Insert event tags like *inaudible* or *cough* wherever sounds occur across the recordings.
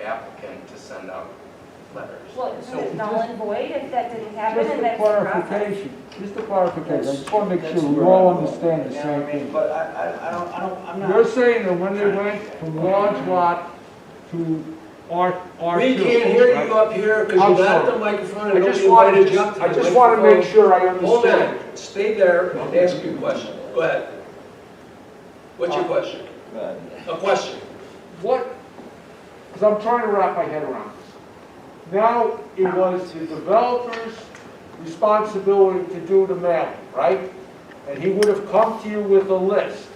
applicant to send out letters. Well, isn't it So, null and void if that didn't happen Just and a that's the process? clarification, just a clarification, I just want to make sure That's we where all I'm going. understand the You know what same I mean? thing. But I, I, I don't, I don't, I'm You're not. saying that when they went from large lot to R, R two. We can't hear you up here because I'm you got sorry. the microphone I and just nobody wanted wanted to jump to to, the I just want to make microphone. sure I Hold understand. on, stay there and ask your question. Go ahead. Uh, What's your question? A question? What, because I'm trying to wrap my head around this. Now, it was the developer's responsibility to do the mailing, right? And he would have come to you with a list,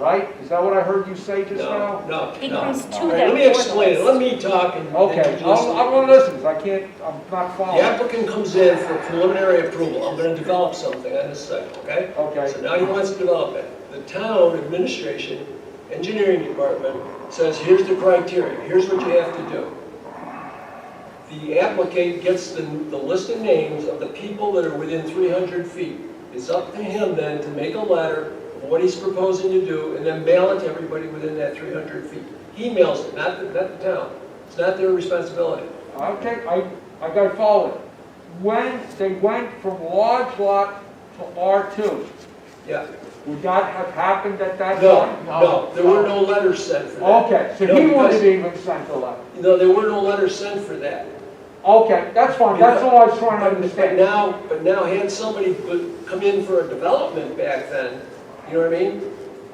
right? Is that what I heard you say just now? No, no, It no. comes to All right, them Let me for explain it, the let me talk and. and Okay, you I'm, listen. I'm gonna listen, 'cause I can't, I'm not The following. applicant comes in for preliminary approval, I'm gonna develop something on this site, okay? Okay. So now he wants to develop it. The town administration, engineering department says, here's the criteria, here's what you have to do. The applicant gets the, the list of names of the people that are within three hundred feet. It's up to him then to make a letter of what he's proposing to do and then mail it to everybody within that three hundred feet. He mails it, not the, not the town. It's not their responsibility. Okay, I, I gotta follow it. When they went from large lot to R two, Yeah. would that have happened at that No, time? no, there were no letters sent for that. Okay, so No, he because- wouldn't even send the letter. No, there were no letters sent for that. Okay, that's fine, that's all I was trying to But understand. now, but now had somebody put- come in for a development back then, you know what I mean? Then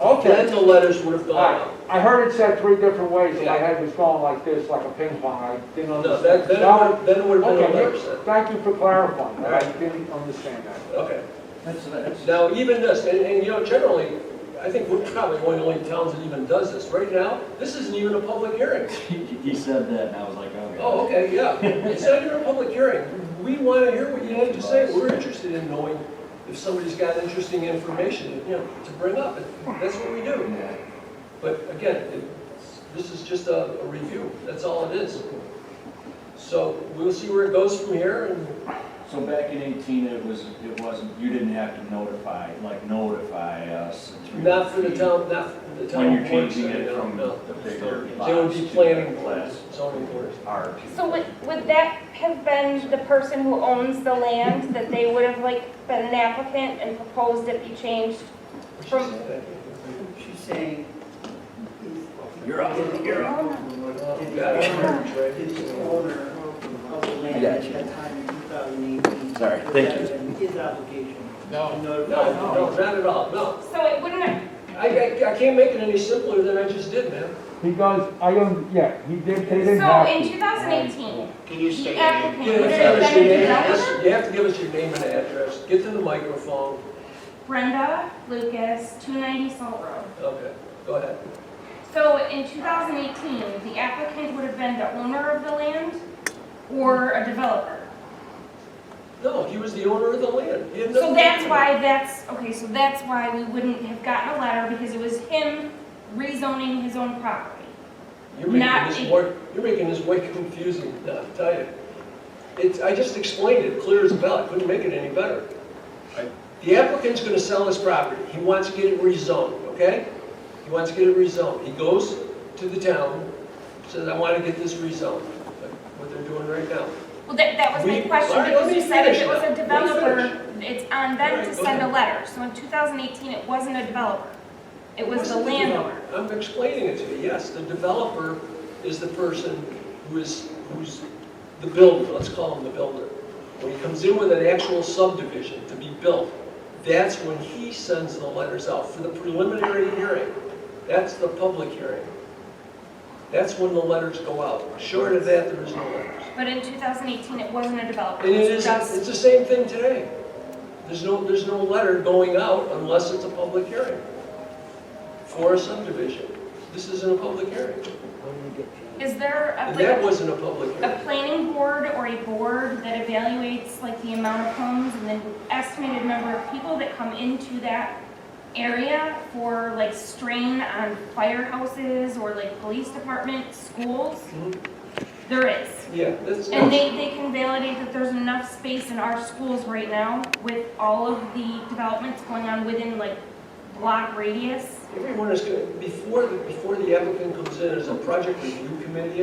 Okay. the letters would have All gone right, out. I heard it said three different ways, and my Yeah. head was going like this, like a ping pong, I didn't No, understand. that, then Now- it would, then it would have been a letter Okay, sent. thank you for clarifying, All I right. didn't understand that. Okay. That's, that's, Now, even this, and, and you know, generally, I think we're probably one of the only towns that even does this. Right now, this isn't even a public hearing. he he said that and I was like, oh. Oh, okay, yeah. It's not even a public hearing. We want to hear what you have to say. We're interested in knowing if somebody's got interesting information, you know, to bring up. That's what we do. But again, it's- this is just a a review, that's all it is. So we'll see where it goes from here, and So back in eighteen, it was, it wasn't, you didn't have to notify, like notify us. through not for the feed town, not for the town. When you're board, changing so, it no, from no. the bigger uh, They would lots be to planning the boards, class zoning boards. R two. So would, would that have been the person who owns the land, that they would have like been an applicant and proposed it be changed? From- She's saying. You're up, you're up. It's Yeah. the owner of the land at that time in 2018. Sorry, thank you. His obligation. No. No, no, not at all, no. So it wouldn't have, I, I I can't make it any simpler than I just did, man. Because I don't, yeah, he did, they didn't so have in to. 2018, Can you the You applicant have would to have give us your been a name and developer? address- you have to give us your name and address, get to the microphone. Brenda Lucas, 290 Salt Road. Okay, go ahead. So in 2018, the applicant would have been the owner of the land or a developer? No, he was the owner of the land. He had So nothing to that's do with it. why that's, okay, so that's why we wouldn't have gotten a letter because it was him rezoning his own property. You're making Not this in- more, you're making this way confusing, *laughs* I'll tell you. It's, I just explained it clear as a bell, I couldn't make it any better. The applicant's gonna sell his property, he wants to get it rezoned, okay? He wants to get it rezoned, he goes to the town, says, I wanna get this rezoned, like what they're doing right now. Well, that, that was my We- question all right, let because me you said if finish it was now. a Let me developer, it's on All them right, to go send a ahead. letter. So in 2018, it wasn't a developer. It was the What's the developer? landowner. I'm explaining it to you, yes, the developer is the person who is, who's the builder, let's call him the builder. When he comes in with an actual subdivision to be built, that's when he sends the letters out for the preliminary hearing. That's the public hearing. That's when the letters go out. Short of that, there is no letters. But in 2018, it wasn't a developer. And it It was is, just, it's the same thing today. There's no, there's no letter going out unless it's a public hearing for a subdivision. This isn't a public hearing. is there a, And like, that wasn't a public a hearing. planning board or a board that evaluates like the amount of homes and then estimated number of people that come into that area for like strain on firehouses or like police department, schools? Mhm. There is. Yeah, that's, And that's they, they can validate that there's enough space in our schools right now with all of the developments going on within like block radius. everyone is, gonna- before, the- before the applicant comes in, there's a project review committee